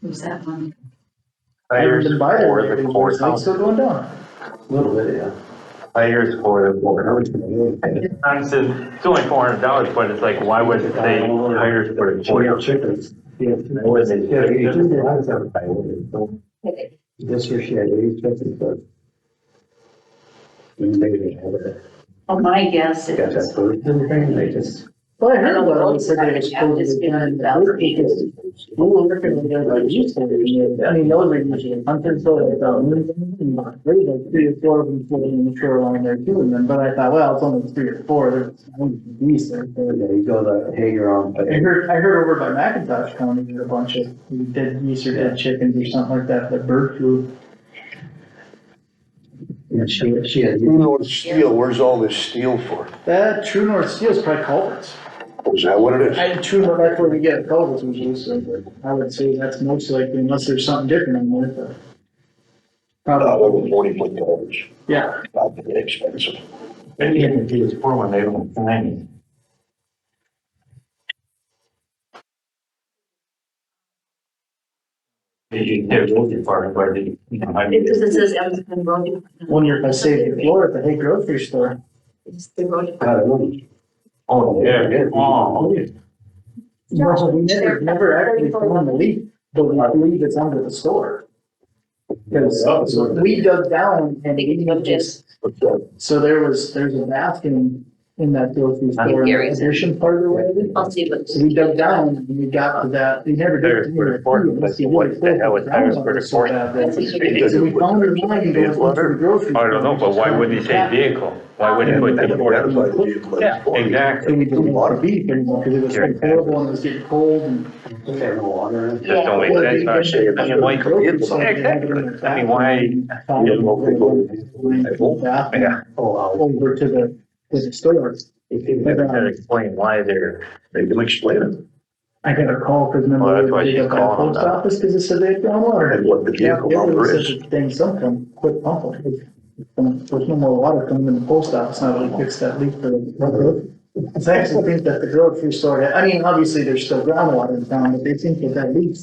Who's that one? Hires Haven't been by there for lately, the but It's courthouse, still going down. A little bit, yeah. hires for the courthouse. Honestly, It's only four hundred dollars, but it's like, why would they hire for the Boy, courthouse? chickens. Yeah, Was it- you just did a lot of time by order, so Okay. This year she had eight chickens, but. And they didn't have it. Oh, my guess They got that is, bird and everything, they just. Well, I heard about it, they said said they were they supposed to be done in Valor Beach. We were working with them, like, you said, I mean, those are usually hunters, so like, um, there's like three or four of them floating in the shoreline there too, and then, but I thought, well, it's only three or four, there's only geese there. There so- you go, the hanger on, but I heard, I heard over by McIntosh County, there's a bunch of dead geese or dead chickens or something like that, the bird flu. and she, she had. Who knows steel, where's all this steel for? That true north steel's probably culverts. Is that what it is? I, true north, that's where we get culverts, which is, I would say that's most likely unless there's something different in there, but. Oh, Probably, over forty foot dollars, yeah. not that expensive. And even if it's for one, they don't find it. They should- They're looking for it, but they, you know, I mean, because it says Evanston Road. One year I saved the floor at the Hay grocery store. It's the road. I don't know. oh, yeah, oh, No, we never, never actually found the leak, but we believe it's under the store. Because we dug down and we just But, uh, So there was, there's a bathroom in that grocery store, in the Gary's. addition part of the way. of it. Oh. I'll see what. So we dug down and we got to that, they never There's did. where the porch was, what the hell is there for the porch? So we found her lying going into the grocery. I don't know, but why would they say store. vehicle? Why would they and put they the port? identify the vehicle as Yeah, for. exactly. So we didn't want to be anymore because it was Gary. horrible and it was getting cold and. They had no water in it. Just don't make Well, they- sense, I should, I mean, why, exactly, I mean, why, Found don't know if they the bathroom yeah. Oh, wow. Over to the, to the store. If they Maybe never um, I can explain why they're, They can explain it, I got a call because remember. Well, that's why they she's got that calling Post them. office because it said they had found water. and what the Yeah, vehicle it number was is. such a thing, some come, quit pumping. Um, There's no more water coming in the post office, now that we fix that leak for the. It's actually think that the grocery store, had- I mean, obviously there's still groundwater in town, but they think that that leak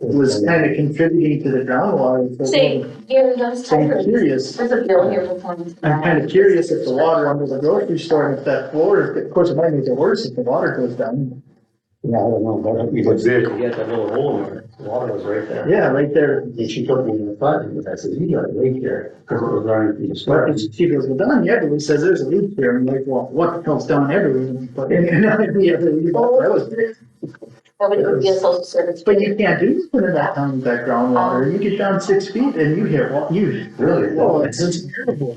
was kind of contributing to the groundwater. so- Say, Gary, those So I'm typers, curious, there's a bill here for twenty. I'm kind uh, of curious if the water under the grocery store, if that floor, is- of course, it might make it worse if the water goes down. Yeah, I don't know, but you What could vehicle? you had that little hole in there, the water was right there. Yeah, right there, And she took me in the butt, and I said, you got a leak here, because it was running through the But square. it's, she goes, well, Don Yedlin says there's a leak here. I'm like, well, what the hell's Don Yedlin? But, and, and I'd be, that was, Nobody would be a social service. but you can't do nothing to that down with that groundwater. You get down six feet and you hear, well, you, Really? oh, it's just terrible.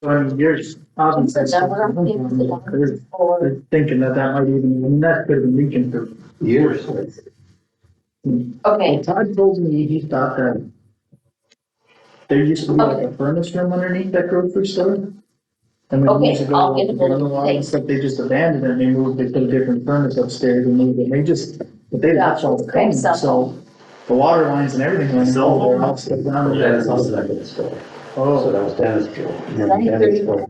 When you're, obviously, There's a number of people that they're, for they're thinking that that might even, and that could have been leaking for Years. okay, Well, Todd told me he thought that there used to be like a furnace room underneath that grocery store. And when years Okay, ago, I'll get it. when the law and stuff, they just abandoned it, and they moved, they put a different furnace upstairs and moved it, they just, but they left all the Okay, cones, so- so. The water lines and everything went in, all their house went down. Yeah, that's also not good story. So Oh, that was Dennis' school. Dennis' school.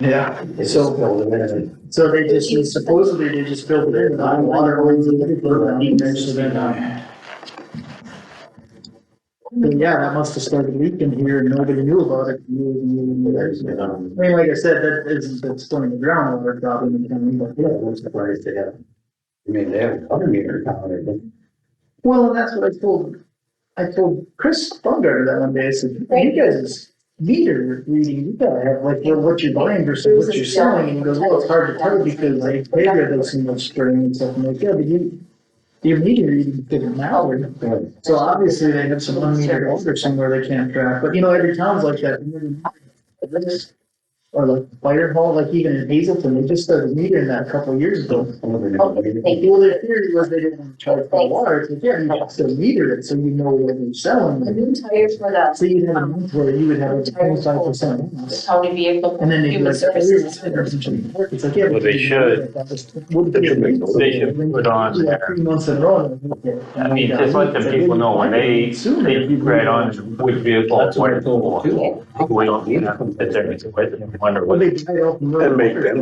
yeah, It just filled in and so they just, supposedly they just filled it in, and the water lines and everything. and so then, um, then, Yeah, that must have started leaking here and nobody knew about it. there's, you know, I mean, like I said, that isn't, that's still in the groundwater problem in county, but. yeah, I'm surprised they have, I mean, they have a water meter down there, but Well, and that's what I told, I told Chris Bumgarner that one day, I said, you guys, meter reading, you gotta have like, what what you're buying versus what you're selling, and he goes, well, it's hard to tell because I paid her this so much spring and stuff, and I'm like, yeah, but you. Your meter reading didn't matter, yeah, so obviously they have some unmetered older somewhere they can't track, but you know, every town's like that. and every- Or like fire hall, like even in Hazelton, they just started metering that a couple years ago. some of them- Okay, thank Well, their theory was they didn't charge for water, it's like, yeah, you have to meter it, so you know what you're selling. the new tires for the So you'd have a month where you would have a twenty-five percent the loss. county vehicle. And then they'd be Human like, oh, services. it's better, it's better. It's like, yeah. Well, they should. They They should put on there. Three months in a row. I mean, just let the people know when they, they right on with vehicles, where, we don't need them, that they're, wonder what. Well, they buy it off. the road. And make them